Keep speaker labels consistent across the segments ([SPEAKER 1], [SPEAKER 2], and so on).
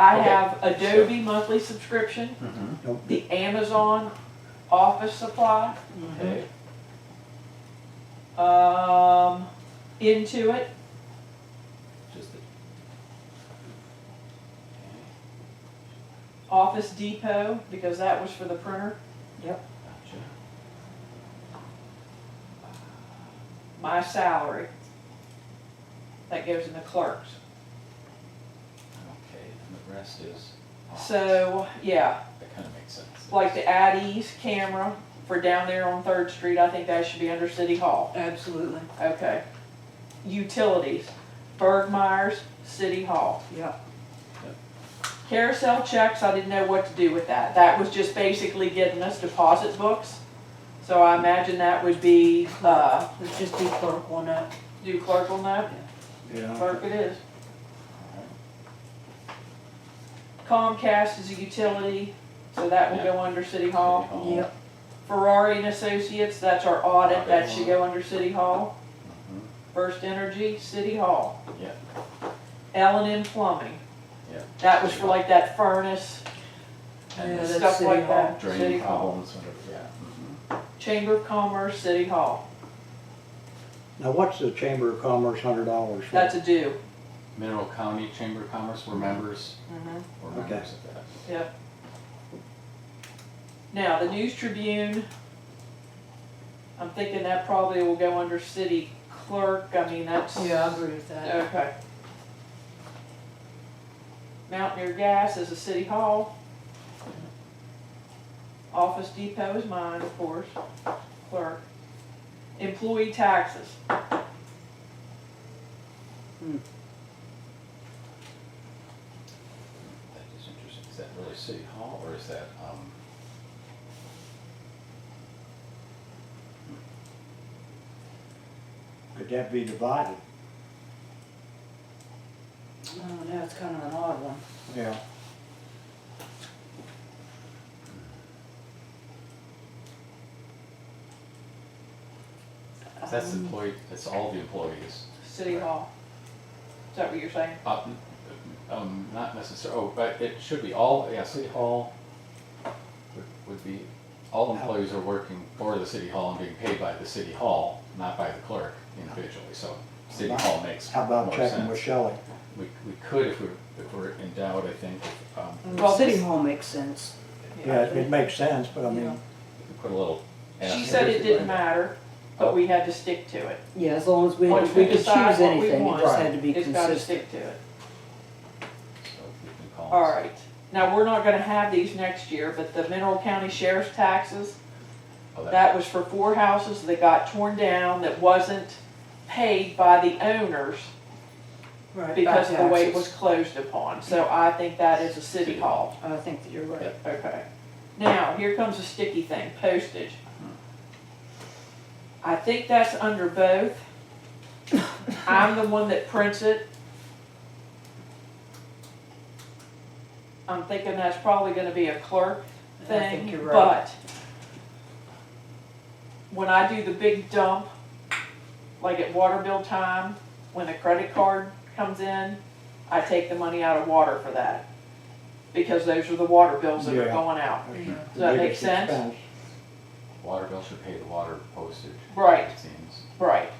[SPEAKER 1] I
[SPEAKER 2] Okay.
[SPEAKER 1] have Adobe monthly subscription,
[SPEAKER 2] Mhm.
[SPEAKER 1] the Amazon office supply,
[SPEAKER 2] Okay,
[SPEAKER 1] um, Intuit,
[SPEAKER 2] just the.
[SPEAKER 1] Office Depot, because that was for the printer,
[SPEAKER 2] Gotcha.
[SPEAKER 1] my salary. That goes in the clerks.
[SPEAKER 2] Okay, and the rest is. office.
[SPEAKER 1] So, yeah,
[SPEAKER 2] That kind of makes sense.
[SPEAKER 1] like the at ease camera for down there on Third Street, I think that should be under City Hall.
[SPEAKER 3] Absolutely,
[SPEAKER 1] Okay. Utilities, Bergmeyer's, City Hall.
[SPEAKER 3] yeah.
[SPEAKER 1] Carousel checks, I didn't know what to do with that. That was just basically getting us deposit books. So I imagine that would be, uh,
[SPEAKER 3] Let's just do clerk one up.
[SPEAKER 1] do clerk on that?
[SPEAKER 4] Yeah,
[SPEAKER 1] Clerk it is.
[SPEAKER 2] Alright.
[SPEAKER 1] Comcast is a utility, so that will go under City Hall.
[SPEAKER 2] City Hall.
[SPEAKER 1] Ferrari and Associates, that's our audit, that should go under City Hall.
[SPEAKER 2] Mhm.
[SPEAKER 1] First Energy, City Hall.
[SPEAKER 2] Yeah.
[SPEAKER 1] L and M Plumbing.
[SPEAKER 2] Yeah.
[SPEAKER 1] That was for like that furnace,
[SPEAKER 2] And
[SPEAKER 3] Yeah,
[SPEAKER 2] the
[SPEAKER 3] that's
[SPEAKER 1] stuff
[SPEAKER 3] City
[SPEAKER 1] like
[SPEAKER 3] Hall.
[SPEAKER 1] that, City
[SPEAKER 2] Drain
[SPEAKER 1] Hall.
[SPEAKER 2] problems, whatever, yeah. mhm.
[SPEAKER 1] Chamber of Commerce, City Hall.
[SPEAKER 4] now what's the Chamber of Commerce hundred dollars for?
[SPEAKER 1] That's a due.
[SPEAKER 2] Mineral County Chamber of Commerce, we're members,
[SPEAKER 3] Mm-hmm.
[SPEAKER 1] Mhm.
[SPEAKER 2] we're
[SPEAKER 4] Okay.
[SPEAKER 2] members of that.
[SPEAKER 1] Yep. Now, the News Tribune, I'm thinking that probably will go under city clerk, I mean, that's.
[SPEAKER 3] Yeah, I agree with that.
[SPEAKER 1] Okay. Mountaineer Gas is a city hall. Office Depot is mine, of course, clerk. Employee taxes.
[SPEAKER 2] That is interesting, is that really City Hall, or is that, um?
[SPEAKER 4] Could that be divided?
[SPEAKER 3] Oh, no, it's kind of an odd one.
[SPEAKER 4] Yeah.
[SPEAKER 2] That's
[SPEAKER 3] Um,
[SPEAKER 2] employee, that's all the employees.
[SPEAKER 1] City
[SPEAKER 2] Right.
[SPEAKER 1] Hall. Is that what you're saying?
[SPEAKER 2] Uh, n- Um, not necessarily, oh, but it should be all, yeah, City Hall would- would be, all employees are working for the City Hall and being paid by the City Hall, not by the clerk individually, so City Hall makes
[SPEAKER 4] How
[SPEAKER 2] more
[SPEAKER 4] about checking with
[SPEAKER 2] sense.
[SPEAKER 4] Shelley?
[SPEAKER 2] We, we could if we're, if we're in doubt, I think, if, um,
[SPEAKER 1] Well,
[SPEAKER 3] Well, Mm, City
[SPEAKER 1] this-
[SPEAKER 3] Hall makes sense.
[SPEAKER 4] Yeah, it- it makes sense, but I
[SPEAKER 3] Yeah.
[SPEAKER 2] we
[SPEAKER 4] mean,
[SPEAKER 2] could put a little.
[SPEAKER 1] She
[SPEAKER 2] asterisk
[SPEAKER 1] said it didn't
[SPEAKER 2] behind
[SPEAKER 1] matter, but we had to stick to it.
[SPEAKER 3] Yeah, as long as we,
[SPEAKER 1] Once
[SPEAKER 3] we could choose
[SPEAKER 1] decide what we
[SPEAKER 3] anything, it
[SPEAKER 1] want,
[SPEAKER 3] just had to be
[SPEAKER 1] It's gotta
[SPEAKER 3] consistent.
[SPEAKER 1] stick to it.
[SPEAKER 2] it, so we can call
[SPEAKER 1] All
[SPEAKER 2] it-
[SPEAKER 1] right, now, we're not gonna have these next year, but the Mineral County Sheriff's taxes,
[SPEAKER 2] oh,
[SPEAKER 1] that was for four houses that got torn down that wasn't paid by the owners
[SPEAKER 3] Right,
[SPEAKER 1] because
[SPEAKER 3] by
[SPEAKER 1] of the way it was
[SPEAKER 3] taxes.
[SPEAKER 1] closed upon, so I think that is a city
[SPEAKER 2] City hall.
[SPEAKER 1] hall,
[SPEAKER 3] I think that you're right.
[SPEAKER 1] okay. Now, here comes a sticky thing, postage. I think that's under both. I'm the one that prints it. I'm thinking that's probably gonna be a clerk
[SPEAKER 3] I think
[SPEAKER 1] thing,
[SPEAKER 3] you're right.
[SPEAKER 1] but when I do the big dump, like at water bill time, when the credit card comes in, I take the money out of water for that. Because those are the water bills that are
[SPEAKER 4] Yeah.
[SPEAKER 1] going out.
[SPEAKER 4] that's
[SPEAKER 3] Yeah.
[SPEAKER 4] the
[SPEAKER 1] Does that make
[SPEAKER 4] biggest
[SPEAKER 1] sense?
[SPEAKER 4] expense.
[SPEAKER 2] Water bill should pay the water postage.
[SPEAKER 1] Right.
[SPEAKER 2] It seems,
[SPEAKER 1] Right,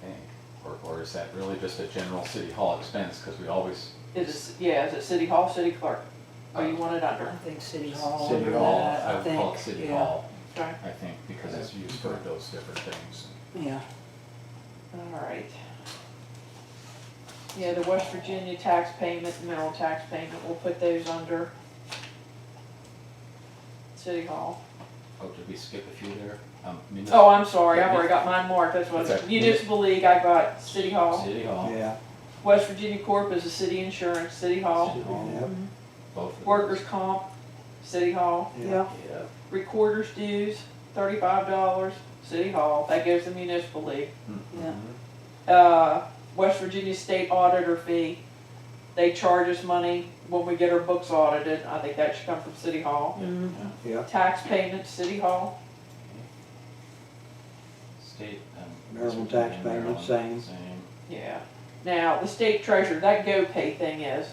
[SPEAKER 2] I think, or, or is that really just a general City Hall expense, because we always
[SPEAKER 1] is it, yeah, is it city hall, city clerk? Or you want it
[SPEAKER 3] I
[SPEAKER 1] under?
[SPEAKER 3] think City Hall,
[SPEAKER 4] City
[SPEAKER 3] under
[SPEAKER 4] Hall,
[SPEAKER 3] that,
[SPEAKER 2] I
[SPEAKER 3] I
[SPEAKER 2] would call it
[SPEAKER 3] think,
[SPEAKER 2] City
[SPEAKER 3] yeah,
[SPEAKER 2] Hall,
[SPEAKER 1] Okay,
[SPEAKER 2] I think, because it's used for those different things.
[SPEAKER 3] yeah.
[SPEAKER 1] all right. Yeah, the West Virginia tax payment, mineral tax payment, we'll put those under city hall.
[SPEAKER 2] Oh, did we skip a few there? Um, munis-
[SPEAKER 1] Oh, I'm sorry, I've already got mine marked, that's what,
[SPEAKER 2] Okay.
[SPEAKER 1] municipal league, I got city hall.
[SPEAKER 2] City Hall,
[SPEAKER 4] Yeah,
[SPEAKER 1] West Virginia Corp is a city insurance, city hall.
[SPEAKER 2] City Hall,
[SPEAKER 3] Mhm.
[SPEAKER 2] both of those.
[SPEAKER 1] Workers' comp, city hall.
[SPEAKER 4] yeah,
[SPEAKER 2] Yeah,
[SPEAKER 1] Recorders dues, thirty-five dollars, city hall, that goes to municipal league.
[SPEAKER 3] Yeah.
[SPEAKER 2] mhm.
[SPEAKER 1] Uh, West Virginia State auditor fee, they charge us money when we get our books audited, I think that should come from city hall.
[SPEAKER 3] Mhm.
[SPEAKER 4] yeah.
[SPEAKER 1] Tax payments, city hall,
[SPEAKER 2] State, um.
[SPEAKER 4] Maryland
[SPEAKER 2] West
[SPEAKER 4] tax
[SPEAKER 2] Virginia,
[SPEAKER 4] payment,
[SPEAKER 2] Maryland,
[SPEAKER 4] same.
[SPEAKER 2] Same.
[SPEAKER 1] yeah. Now, the state treasurer, that GoPay thing is,